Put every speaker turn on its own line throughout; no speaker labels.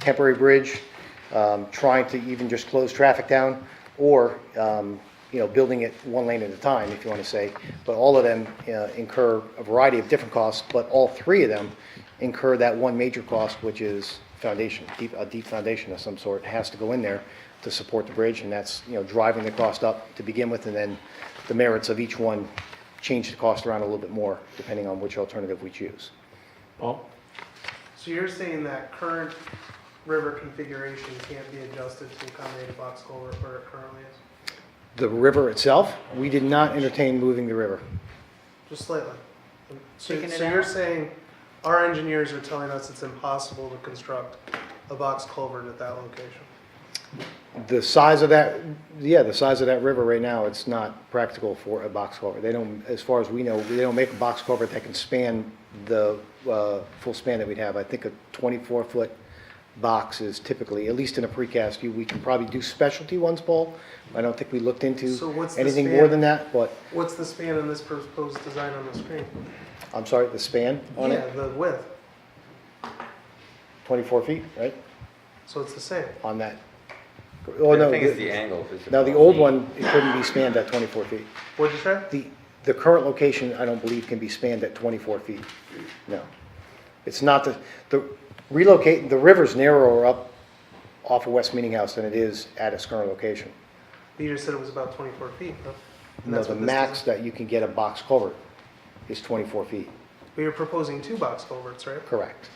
temporary bridge, um, trying to even just close traffic down, or, um, you know, building it one lane at a time, if you want to say. But all of them uh, incur a variety of different costs, but all three of them incur that one major cost, which is foundation, deep, a deep foundation of some sort has to go in there to support the bridge, and that's, you know, driving the cost up to begin with, and then the merits of each one change the cost around a little bit more, depending on which alternative we choose.
Paul?
So you're saying that current river configuration can't be adjusted to accommodate a box culvert where it currently is?
The river itself, we did not entertain moving the river.
Just slightly. So,
Taking it
so you're
out?
saying our engineers are telling us it's impossible to construct a box culvert at that location?
The size of that, yeah, the size of that river right now, it's not practical for a box culvert. They don't, as far as we know, they don't make a box culvert that can span the uh, full span that we'd have. I think a 24-foot box is typically, at least in a precast, you- we can probably do specialty ones, Paul. I don't think we looked
So
into
what's the
anything
span?
more than that, but,
What's the span in this proposed design on the screen?
I'm sorry, the span on
Yeah,
it,
the width,
24 feet, right,
so it's the same.
on that. Oh, no,
The thing is the
the-
angle. is
now the
about
old
eight.
one, it couldn't be spanned at 24 feet.
What'd you say?
The, the current location, I don't believe, can be spanned at 24 feet. No. It's not the, the relocate, the river's narrower up off of West Meeting House than it is at its current location.
You just said it was about twenty-four feet, huh? And
No,
that's
the
what this
max
design-
that you can get a box culvert is 24 feet.
But you're proposing two box culverts, right?
Correct.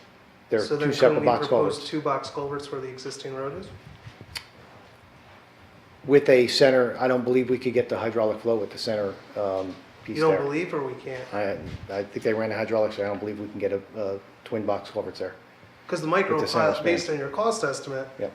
There are
So then
two
couldn't
separate
we
box
propose
culverts
two box culverts where the existing road is?
with a center, I don't believe we could get the hydraulic flow with the center um, piece
You don't
there.
believe or we can't?
I, I think they ran a hydraulics, there. I don't believe we can get a, a twin box culverts there.
Because the
It
micro
just
plat,
sounds
based on your cost estimate,
Yep.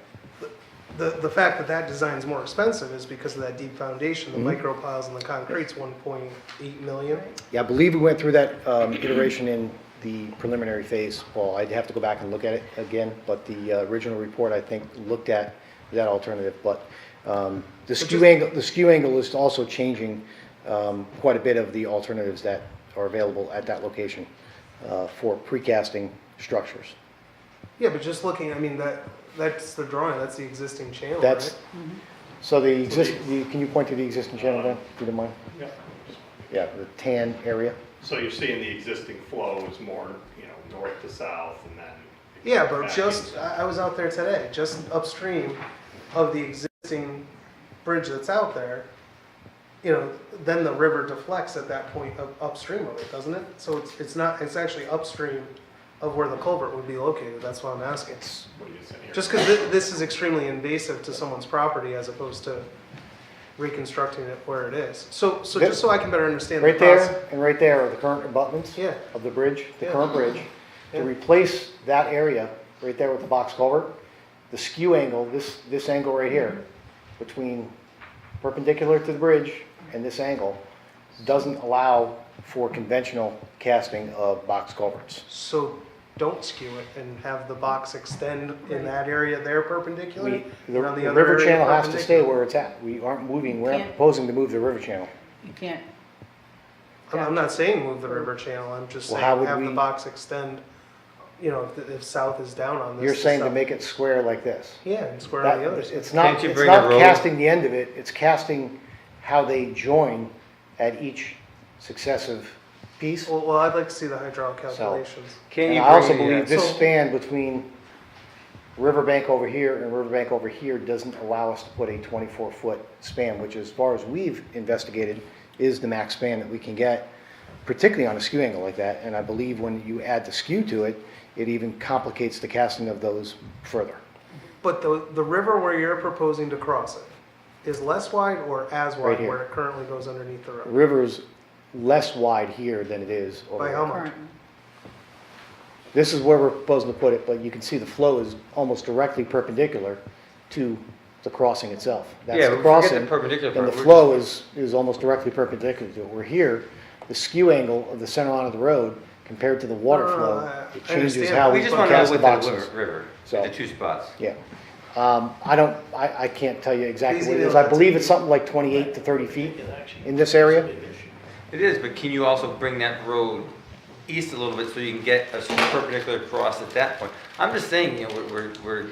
the, the fact that that design's more expensive is because of that deep foundation. The
Mm-hmm.
micro piles and the concrete's one point eight million.
Yeah, I believe we went through that um, iteration in the preliminary phase, Paul. I'd have to go back and look at it again, but the uh, original report, I think, looked at that alternative, but um, the skew
just-
angle, the skew angle is also changing um, quite a bit of the alternatives that are available at that location uh, for precasting structures.
Yeah, but just looking, I mean, that, that's the drawing, that's the existing channel,
That's,
right?
Mm-hmm. so the exist, the- can you point to the existing channel then, if you don't mind?
Yeah.
Yeah, the tan area.
So you're seeing the existing flow is more, you know, north to south and then.
Yeah, but
back
just,
east.
I, I was out there today, just upstream of the existing bridge that's out there. You know, then the river deflects at that point up, upstream of it, doesn't it? So it's, it's not, it's actually upstream of where the culvert would be located, that's what I'm asking.
What are you saying here?
Just because thi- this is extremely invasive to someone's property as opposed to reconstructing it where it is. So, so just so I can better understand the
Right
process.
there and right there are the current abutments.
Yeah.
Of the bridge, the
Yeah.
current bridge. To
Yeah.
replace that area, right there with the box culvert, the skew angle, this, this angle right here, between perpendicular to the bridge and this angle, doesn't allow for conventional casting of box culverts.
So don't skew it and have the box extend in that area there perpendicular.
We,
and
the
on
the
other
river
area
channel has to stay
perpendicular.
where it's at. We aren't moving, we're not
Can't.
proposing to move the river channel.
You can't,
I'm- I'm not saying move the river channel, I'm just
Well,
saying
how would
have the
we-
box extend, you know, if, if south is down on this.
You're saying to
south-
make it square like this.
Yeah, and square on the
That,
other side.
it's not,
Can't you
it's
bring a
not
roll?
casting the end of it, it's casting how they join at each successive piece.
Well, well, I'd like to see the hydraulic calculations.
Can
And
you
I also
bring- yeah.
believe this
So-
span between Riverbank over here and Riverbank over here doesn't allow us to put a twenty-four foot span, which as far as we've investigated, is the max span that we can get, particularly on a skew angle like that. And I believe when you add the skew to it, it even complicates the casting of those further.
But the, the river where you're proposing to cross it is less wide or as
Right
wide
here.
where it currently goes underneath the
The
road?
river is less wide here than it is over
By
there.
how much?
current,
This is where we're proposing to put it, but you can see the flow is almost directly perpendicular to the crossing itself. That's
Yeah,
the
but forget the
crossing,
perpendicular
And
part.
the
We're
flow is, is almost directly perpendicular to it. We're here, the skew angle of the center line of the road compared to the water
No, no, no, I-
flow,
I
it changes
understand.
how we
We just want to
cast
know
the
with the
boxes.
river- river,
So-
the two spots.
Yeah. Um, I don't, I, I can't tell you exactly
Easy
what it
to
is. I
know.
believe it's something like 28 to 30 feet in this area.
It is, but can you also bring that road east a little bit so you can get a perpendicular cross at that point? I'm just saying, you know, we're, we're- we're